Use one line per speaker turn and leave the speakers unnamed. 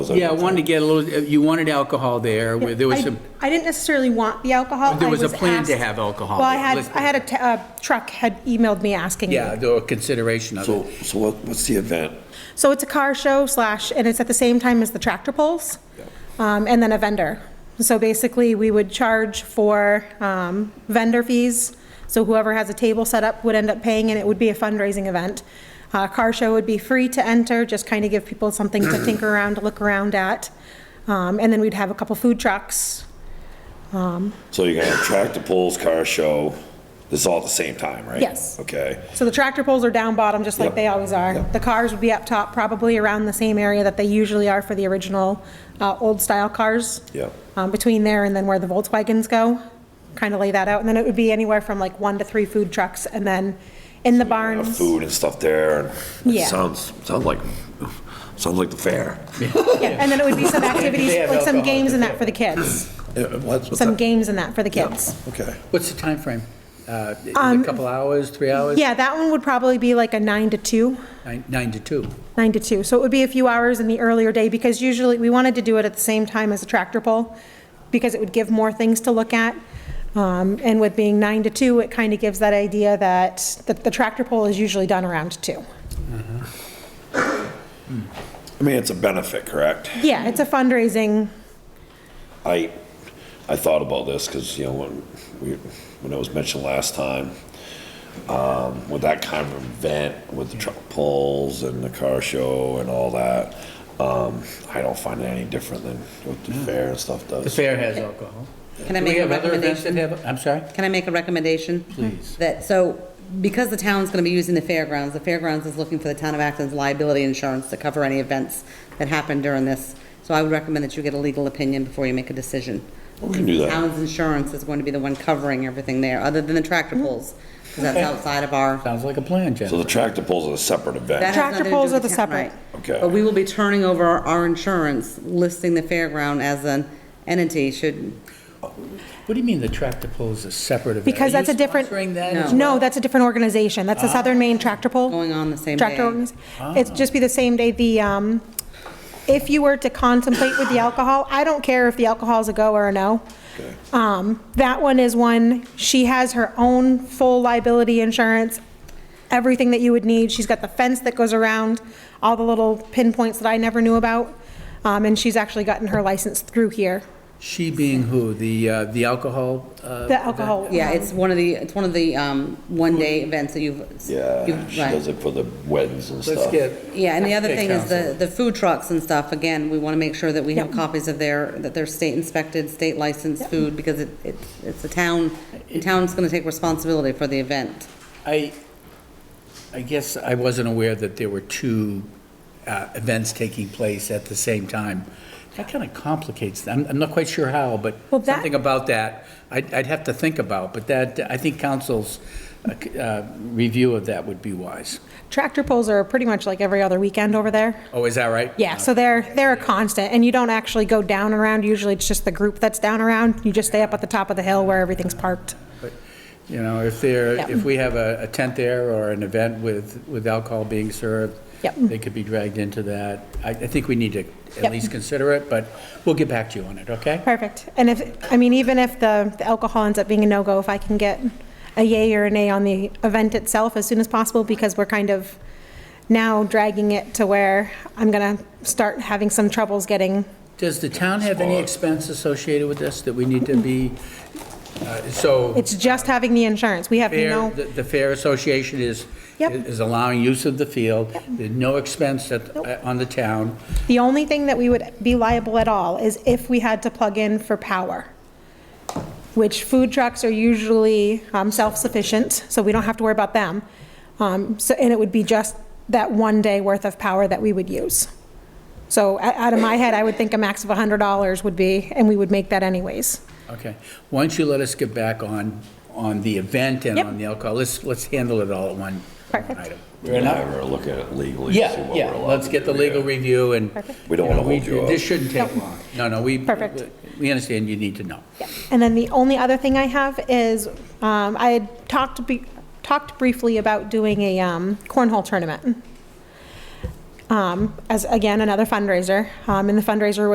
Yeah, I wanted to get a little, you wanted alcohol there, where there was
I-
some,
I didn't necessarily want the alcohol.
There
I
was a plan to
asked-
have alcohol.
Well, I had,
Let's-
I had a t- a truck had emailed me asking. me.
yeah, there were consideration of
So,
it.
so what, what's the event?
So it's a car show slash, and it's at the same time as the tractor pulls, um, and then a vendor. So basically, we would charge for um, vendor fees, so whoever has a table set up would end up paying, and it would be a fundraising event. Uh, Car show would be free to enter, just kind of give people something to tinker around, to look around at. Um, And then we'd have a couple food trucks.
So you're gonna have tractor pulls, car show, this is all at the same time, right?
Yes.
Okay,
So the tractor poles are down bottom, just like
Yep.
they always are.
Yep.
The cars would be up top, probably around the same area that they usually are for the original uh, old-style cars.
Yep.
Um, Between there and then where the Volkswagens go, kind of lay that out. And then it would be anywhere from like one to three food trucks, and then in the
Have
barns.
food and stuff there, and
Yeah.
it sounds, sounds like, sounds like the fair.
Yeah, And then it would be some activities,
They have
like some
alcohol,
games and that for the kids,
Yeah, what's- what's
some
that?
games and that for the kids.
Okay.
What's the timeframe? Uh, is it
Um,
A couple hours, three hours?
Yeah, that one would probably be like a nine to two.
Nine nine to two.
Nine to two, so it would be a few hours in the earlier day, because usually, we wanted to do it at the same time as a tractor pull, because it would give more things to look at. Um, And with being nine to two, it kind of gives that idea that the- the tractor pull is usually done around two.
I mean, it's a benefit, correct?
Yeah, it's a fundraising,
I, I thought about this, because, you know, when we, when it was mentioned last time, um, with that kind of event, with the truck pulls and the car show and all that, um, I don't find it any different than what the fair and stuff does.
The fair has alcohol.
Can I
Do
make
we
a
have other events that
recommendation?
have- I'm sorry?
Can I make a recommendation?
Please.
That, so, because the town's gonna be using the fairgrounds, the fairgrounds is looking for the town of Acton's liability insurance to cover any events that happen during this. So I would recommend that you get a legal opinion before you make a decision.
We can do that.
Town's insurance is going to be the one covering everything there, other than the tractor pulls, because that's
Hmm. Okay.
outside of our.
Sounds like a plan,
So
Jen.
the tractor pulls are a separate
that
event.
has
Tractor
nothing to do
pulls
with
are the
town-
separate.
right.
Okay.
But we will be turning over our- our insurance, listing the fairground as an entity, should,
What do you mean the tractor pull is a separate event?
because
Are
that's
you
a different.
sponsoring that as
No,
well?
that's a different organization, that's the Southern Maine Tractor Pull.
Going on the same
Tractor
day.
organization, it'd just be the same day, the, um, if you were to contemplate with the alcohol, I don't care if the alcohol's a go or a no.
Okay.
Um, that one is one, she has her own full liability insurance, everything that you would need. She's got the fence that goes around, all the little pinpoints that I never knew about. Um, and she's actually gotten her license through here,
She being who? The, uh, the alcohol? uh,
the alcohol.
yeah, it's one of the, it's one of the, um, one-day events that you've.
Yeah,
you've-
she
right.
does it for the weddings and
Let's
stuff.
get.
Yeah, and the other
Okay,
thing is
counsel.
the, the food trucks and stuff, again, we want to make sure that we have
Yep.
copies of their, that they're state inspected, state licensed food, because it, it- it's the town, the town's going to take responsibility for the event.
I, I guess I wasn't aware that there were two uh, events taking place at the same time. That kind of complicates, I'm, I'm not quite sure how, but
Well, that-
something about that, I'd, I'd have to think about, but that, I think council's uh, c- uh, review of that would be wise.
Tractor pulls are pretty much like every other weekend over there.
Oh, is that right?
Yeah, so they're, they're a constant, and you don't actually go down around, usually it's just the group that's down around, you just stay up at the top of the hill where everything's parked.
But, You know, if there,
Yep.
if we have a a tent there or an event with, with alcohol being served,
Yep.
they could be dragged into that. I, I think we need to at
Yep.
least consider it, but we'll get back to you on it, okay?
Perfect, and if, I mean, even if the the alcohol ends up being a no-go, if I can get a yay or a nay on the event itself as soon as possible, because we're kind of now dragging it to where I'm gonna start having some troubles getting,
Does the town have any expense associated with this that we need to be, uh, so
it's just having the insurance, we have
fair,
no,
the the Fair Association is,
Yep.
is allowing use of the field, there's no expense that,
Nope.
on the town.
the only thing that we would be liable at all is if we had to plug in for power. which food trucks are usually um, self-sufficient, so we don't have to worry about them. Um, So, and it would be just that one day worth of power that we would use. So o- out of my head, I would think a max of $100 would be, and we would make that anyways.
Okay, why don't you let us get back on, on the event and
Yep.
on the alcohol, let's, let's handle it all at one one
Perfect.
item.
We're gonna have her look at it legally. see
Yeah,
what
yeah,
we're allowed
let's
to
get the
do,
legal
yeah.
review and.
We don't
you know,
wanna hold you up.
This shouldn't take long, no, no, we.
Perfect.
We understand you need to know.
And then the only other thing I have is, um, I had talked, be- talked briefly about doing a um, cornhole tournament. Um, um, as, again, another fundraiser. Um, And the fundraiser